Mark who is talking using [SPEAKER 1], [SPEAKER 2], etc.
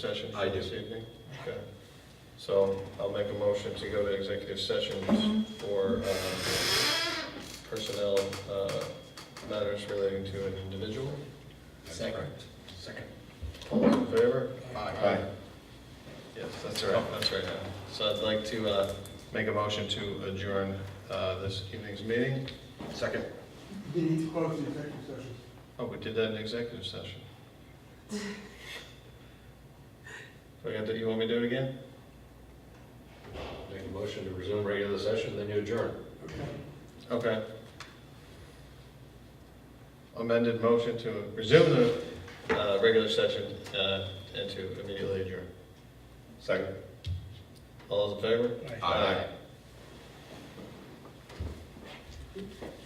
[SPEAKER 1] session
[SPEAKER 2] I
[SPEAKER 1] for
[SPEAKER 2] do.
[SPEAKER 1] this evening? Okay. So I'll make a motion to go to executive session for um, personnel uh, matters relating to an individual.
[SPEAKER 2] Second.
[SPEAKER 3] Second.
[SPEAKER 1] All those in favor?
[SPEAKER 2] Aye.
[SPEAKER 1] Yes, that's right, that's right. yeah. So I'd like to uh, make a motion to adjourn uh, this evening's meeting.
[SPEAKER 2] Second.
[SPEAKER 4] We need to close the executive session.
[SPEAKER 1] Oh, we did that in executive session. Do I get that? you want me to do it again?
[SPEAKER 2] Make a motion to resume regular session, then you adjourn.
[SPEAKER 4] Okay.
[SPEAKER 1] Okay. Amended motion to resume the uh, regular session uh, and to immediately adjourn. Second. All those in favor?
[SPEAKER 2] Aye.
[SPEAKER 1] Aye.